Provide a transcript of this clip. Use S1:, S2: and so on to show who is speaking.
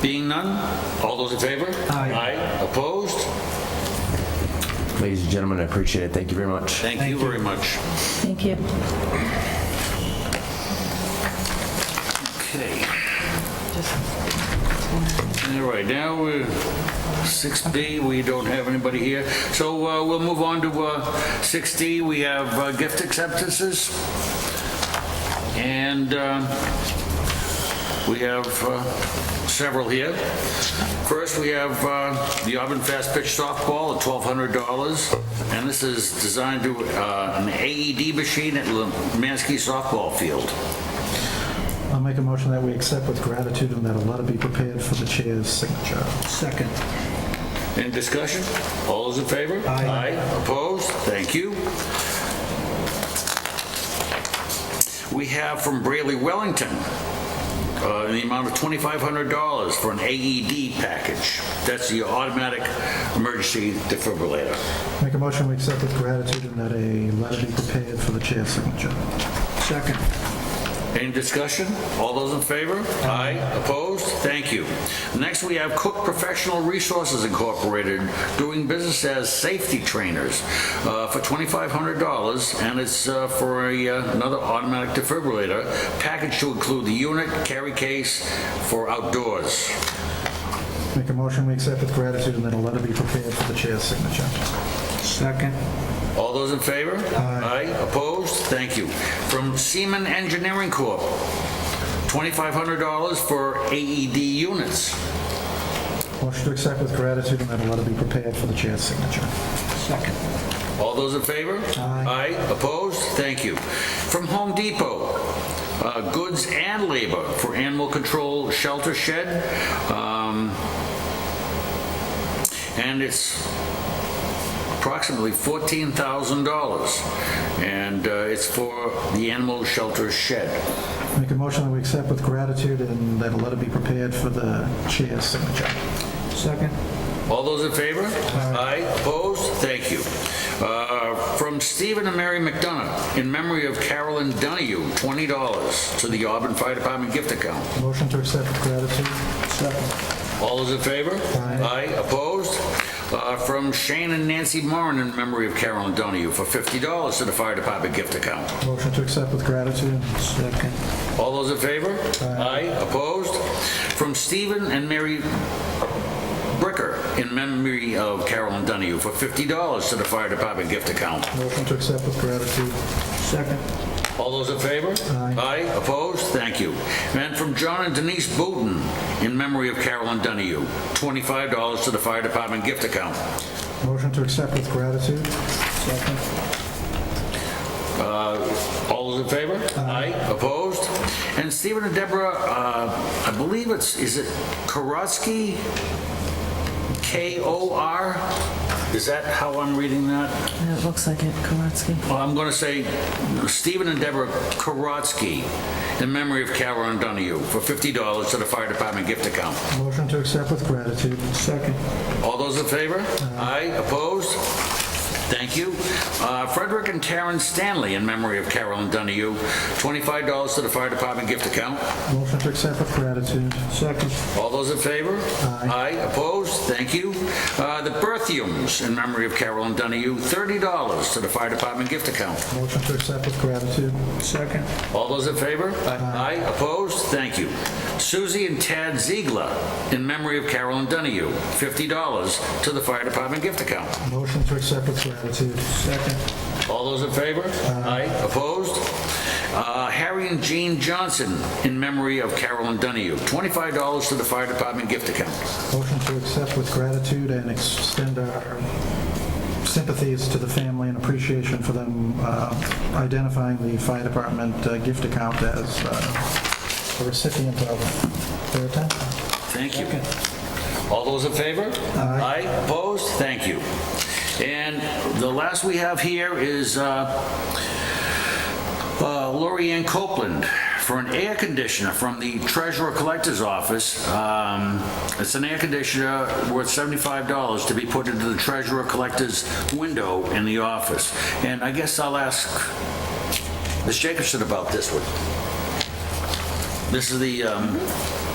S1: Being none, all those in favor?
S2: Aye.
S1: Opposed?
S3: Ladies and gentlemen, I appreciate it. Thank you very much.
S1: Thank you very much.
S4: Thank you.
S1: Okay. All right, now, we're 6B, we don't have anybody here. So uh, we'll move on to uh, 6D, we have uh, gift acceptances. And uh, we have uh, several here. First, we have uh, the Auburn Fast Pitch Softball at $1,200. And this is designed to, uh, an AED machine at Lemansky Softball Field.
S2: I'll make a motion that we accept with gratitude and that a letter be prepared for the chair's signature. Second.
S1: Any discussion? All those in favor?
S2: Aye.
S1: Opposed? Thank you. We have from Braley Wellington, uh, in the amount of $2,500 for an AED package. That's the automatic emergency defibrillator.
S2: Make a motion we accept with gratitude and that a letter be prepared for the chair's signature. Second.
S1: Any discussion? All those in favor? Aye. Opposed? Thank you. Next, we have Cook Professional Resources Incorporated doing business as safety trainers uh, for $2,500, and it's uh, for a, uh, another automatic defibrillator, package to include the unit, carry case for outdoors.
S2: Make a motion we accept with gratitude and that a letter be prepared for the chair's signature. Second.
S1: All those in favor?
S2: Aye.
S1: Opposed? Thank you. From Seaman Engineering Corp., $2,500 for AED units.
S2: Motion to accept with gratitude and that a letter be prepared for the chair's signature. Second.
S1: All those in favor?
S2: Aye.
S1: opposed? Thank you. From Home Depot, uh, goods and labor for animal control shelter shed. um, And it's approximately $14,000. And uh, it's for the animal shelter shed.
S2: Make a motion that we accept with gratitude and that a letter be prepared for the chair's signature. Second.
S1: All those in favor? Aye. Opposed? Thank you. Uh, From Stephen and Mary McDonough, in memory of Carolyn Donahue, $20 to the Auburn Fire Department gift account.
S2: Motion to accept with gratitude. Second.
S1: All those in favor?
S2: Aye.
S1: Opposed? Uh, From Shane and Nancy Moran, in memory of Carolyn Donahue, for $50 to the Fire Department gift account.
S2: Motion to accept with gratitude. Second.
S1: All those in favor?
S2: Aye.
S1: Opposed? From Stephen and Mary Bricker, in memory of Carolyn Donahue, for $50 to the Fire Department gift account.
S2: Motion to accept with gratitude. Second.
S1: All those in favor?
S2: Aye.
S1: opposed? Thank you. And from John and Denise Booton, in memory of Carolyn Donahue, $25 to the fire department gift account.
S2: Motion to accept with gratitude. Second.
S1: All those in favor? Aye. Opposed? And Stephen and Deborah, uh, I believe it's, is it Korotsky? K-O-R? Is that how I'm reading that?
S4: Uh, It looks like it, Kowalski.
S1: Well, I'm going to say Stephen and Deborah Korotsky, in memory of Carolyn Donahue, for $50 to the fire department gift account.
S2: Motion to accept with gratitude. Second.
S1: All those in favor? Aye. Opposed? Thank you. Uh, Frederick and Terrence Stanley, in memory of Carolyn Donahue, $25 to the fire department gift account.
S2: Motion to accept with gratitude. Second.
S1: All those in favor?
S2: Aye.
S1: Opposed? Thank you. Uh, The Berthiums, in memory of Carolyn Donahue, $30 to the fire department gift account.
S2: Motion to accept with gratitude. Second.
S1: All those in favor?
S2: Aye.
S1: Opposed? Thank you. Susie and Tad Ziegler, in memory of Carolyn Donahue, $50 to the fire department gift account.
S2: Motion to accept with gratitude. Second.
S1: All those in favor? Aye. Opposed? Uh, Harry and Jean Johnson, in memory of Carolyn Donahue, $25 to the fire department gift account.
S2: Motion to accept with gratitude and extend our sympathies to the family and appreciation for them uh, identifying the fire department uh, gift account as uh, a recipient of their attention.
S1: Thank you. All those in favor?
S2: Aye.
S1: Opposed? Thank you. And the last we have here is uh, uh, Lori Ann Copeland for an air conditioner from the Treasurer Collector's Office. Um, It's an air conditioner worth $75 to be put into the Treasurer Collector's window in the office. And I guess I'll ask Ms. Jacobson about this one. This is the um,